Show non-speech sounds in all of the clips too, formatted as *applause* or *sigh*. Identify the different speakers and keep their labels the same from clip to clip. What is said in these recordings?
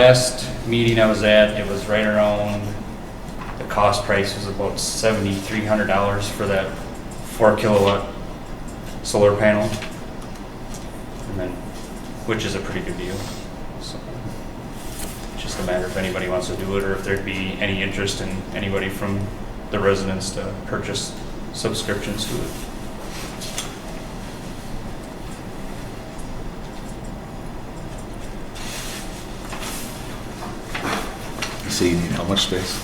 Speaker 1: Last meeting I was at, it was right around, the cost price was about seventy-three hundred dollars for that four kilowatt solar panel. And then, which is a pretty good deal. So, it's Just a matter if anybody wants to do it or if there'd be any interest in anybody from the residents to purchase subscriptions to it.
Speaker 2: So you need how much space?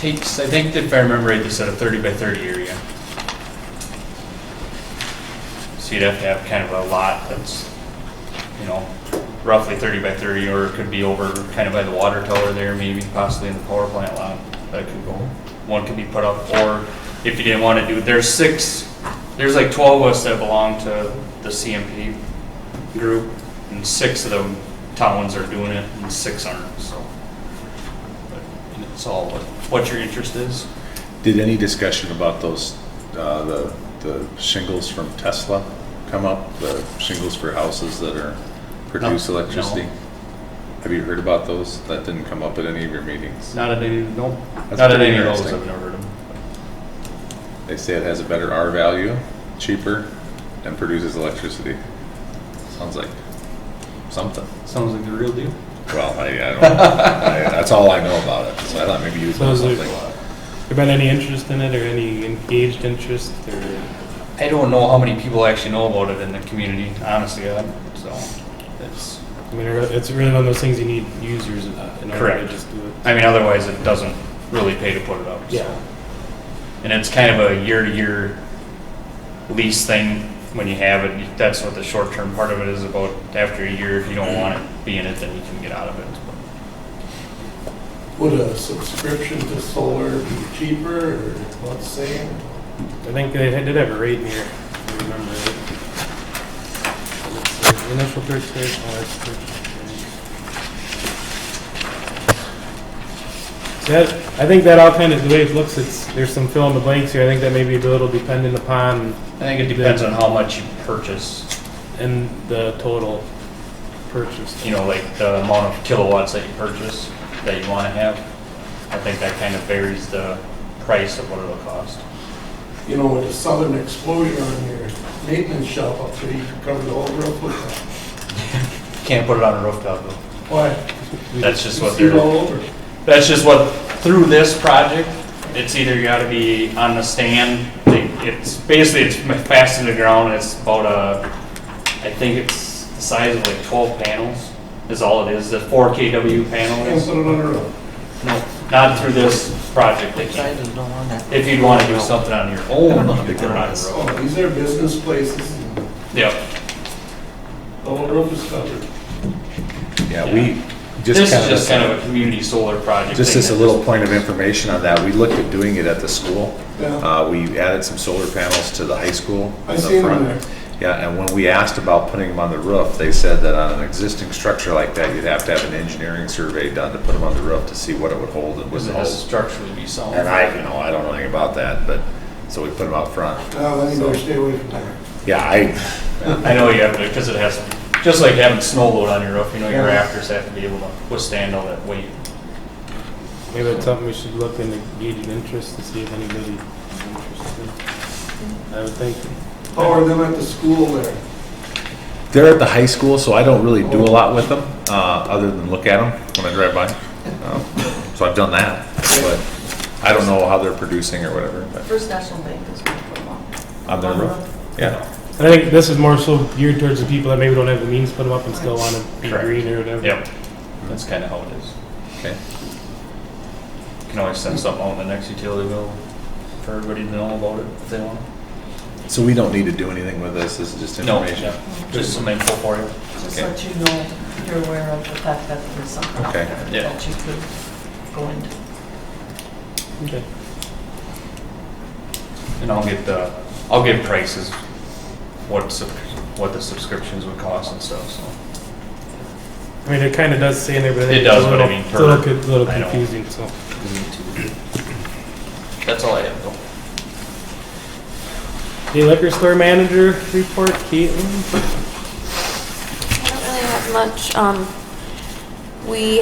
Speaker 1: Takes, I think if I remember right, they said a thirty by thirty area. So you'd have to have kind of a lot that's, you know, roughly thirty by thirty, or it could be over kind of by the water tower there, maybe possibly in the power plant lot. That could go, one could be put up, or if you didn't want to do, there's six, there's like twelve of us that belong to the CMP group, and six of them towns are doing it, and six aren't, so. And it's all what, what your interest is.
Speaker 2: Did any discussion about those, uh, the, the shingles from Tesla come up? The shingles for houses that are, produce
Speaker 1: No, no.
Speaker 2: electricity? Have you heard about those? That didn't come up at any of your meetings?
Speaker 1: Not at any, no, not
Speaker 2: That's
Speaker 1: at
Speaker 2: pretty
Speaker 1: any of those,
Speaker 2: interesting.
Speaker 1: I've never heard of them.
Speaker 2: They say it has a better R value, cheaper, and produces electricity. Sounds like something.
Speaker 1: Sounds like the real deal.
Speaker 2: Well, I, I
Speaker 1: *laughs*
Speaker 2: don't, I- that's all I know about it, so I thought maybe you would know
Speaker 3: Sounds like-
Speaker 2: something.
Speaker 3: There been any interest in it or any engaged interest or?
Speaker 1: I don't know how many people actually know about it in the community, honestly, God, so, it's,
Speaker 3: I mean, it's really one of those things you need users uh, in order to
Speaker 1: Correct.
Speaker 3: just do it.
Speaker 1: I mean, otherwise it doesn't really pay to put it up, so.
Speaker 3: Yeah,
Speaker 1: And it's kind of a year-to-year lease thing when you have it, that's what the short-term part of it is about. After a year, if you don't want it, be in it, then you can get out of it.
Speaker 4: Would a subscription to solar be cheaper, or let's say,
Speaker 3: I think they had- did have a rate in here, if I remember it. Let's see, Initial purchase, price, oh, that's purchase. price. So that, I think that all kind of, the way it looks, it's, there's some fill in the blanks here. I think that may be a little dependent upon
Speaker 1: I think it depends on how much you purchase.
Speaker 3: and the total purchase.
Speaker 1: you know, like the amount of kilowatts that you purchase, that you want to have. I think that kind of varies the price of what it'll cost.
Speaker 4: you know, with a southern exposure on your maintenance shop up there, you could cover the whole roof with
Speaker 1: Can't put it on a rooftop though.
Speaker 4: that? Why?
Speaker 1: That's just
Speaker 4: You
Speaker 1: what
Speaker 4: see it all
Speaker 1: they're,
Speaker 4: over.
Speaker 1: that's just what, through this project, it's either you gotta be on the stand, they- it's, basically it's fast to the ground, it's about a, I think it's the size of like twelve panels is all it is, the four KW
Speaker 4: Can't
Speaker 1: panels.
Speaker 4: put it on a roof.
Speaker 1: No, not through this project, they can't. If you'd wanna do something on your own, you could put it on a roof.
Speaker 4: Oh, these are business places, and
Speaker 1: Yep.
Speaker 4: the whole roof is covered.
Speaker 2: Yeah, we just
Speaker 1: This
Speaker 2: kind of.
Speaker 1: is just kind of a community solar project.
Speaker 2: Just
Speaker 1: thing
Speaker 2: as a
Speaker 1: that-
Speaker 2: little point of information on that, we looked at doing it at the school.
Speaker 4: Yeah.
Speaker 2: Uh, we added some solar panels to the high school.
Speaker 4: I
Speaker 2: in the
Speaker 4: seen them
Speaker 2: front.
Speaker 4: there.
Speaker 2: Yeah, and when we asked about putting them on the roof, they said that on an existing structure like that, you'd have to have an engineering survey done to put them on the roof to see what it would hold and
Speaker 1: Was
Speaker 2: wouldn't
Speaker 1: it has
Speaker 2: hold.
Speaker 1: structurally be sound?
Speaker 2: And I, you know, I don't know anything about that, but, so we put them out front.
Speaker 4: No, then you better stay away from there.
Speaker 2: Yeah, I,
Speaker 1: I know you have to, because it has, just like having snow load on your roof, you know, your
Speaker 4: Yeah.
Speaker 1: rafters have to be able to withstand all that weight.
Speaker 3: Maybe it's something we should look into gauging interest to see if anybody is interested. I would think.
Speaker 4: Oh, or them at the school there.
Speaker 2: they're at the high school, so I don't really do a lot with them, uh, other than look at them when I drive by. Um, So I've done that, but I don't know how they're producing or whatever, but.
Speaker 5: First National Bank is one for one.
Speaker 2: On their roof? Yeah.
Speaker 3: And I think this is more so geared towards the people that maybe don't have the means to put them up and still want to be
Speaker 1: Correct.
Speaker 3: green or whatever.
Speaker 1: Yep. That's kind of how it is.
Speaker 2: Mm-hmm. Okay.
Speaker 1: You Can always send something out in the next utility bill for everybody to know about it if they want.
Speaker 2: So we don't need to do anything with this, this is just
Speaker 1: No,
Speaker 2: information?
Speaker 1: yeah, just some info for you.
Speaker 5: Just
Speaker 2: Okay.
Speaker 5: let you know, you're aware of the fact that there's something out
Speaker 2: Okay.
Speaker 5: there
Speaker 1: Yeah.
Speaker 5: that you could go into.
Speaker 3: Okay.
Speaker 1: And I'll get the, I'll get prices, what, sub- what the subscriptions would cost and stuff, so.
Speaker 3: I mean, it kind of does say in there, but I think
Speaker 1: It does,
Speaker 3: it's a
Speaker 1: but I
Speaker 3: little,
Speaker 1: mean,
Speaker 3: it's a little,
Speaker 1: for-
Speaker 3: co- little
Speaker 1: I know.
Speaker 3: confusing. So
Speaker 1: That's all I have though.
Speaker 3: the liquor store manager report, Caitlin.
Speaker 6: I don't really have much. Um, We